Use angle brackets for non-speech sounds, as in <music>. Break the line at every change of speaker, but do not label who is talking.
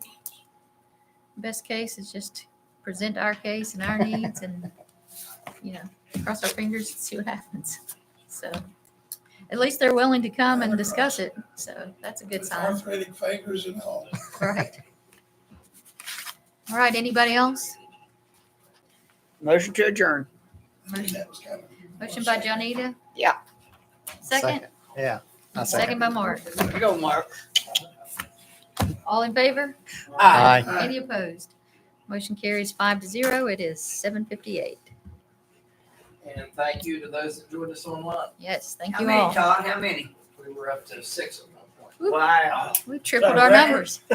best case is just present our case and our needs and, you know, cross our fingers and see what happens. So at least they're willing to come and discuss it. So that's a good sign.
Arthritic fingers and all. <laughs>
Right. All right, anybody else?
Motion to adjourn.
I mean, that was kind of-
Motion by Johnita?
Yeah.
Second?
Yeah. I
Second by Mark.
You go, Mark.
All in favor?
Aye.
Aye.
Any opposed? Motion carries five to zero. It is seven fifty-eight.
And thank you to those that joined us online.
Yes, thank
How
you
many,
all.
Todd? How many?
We were up to six at one point.
Wow.
We tripled our numbers.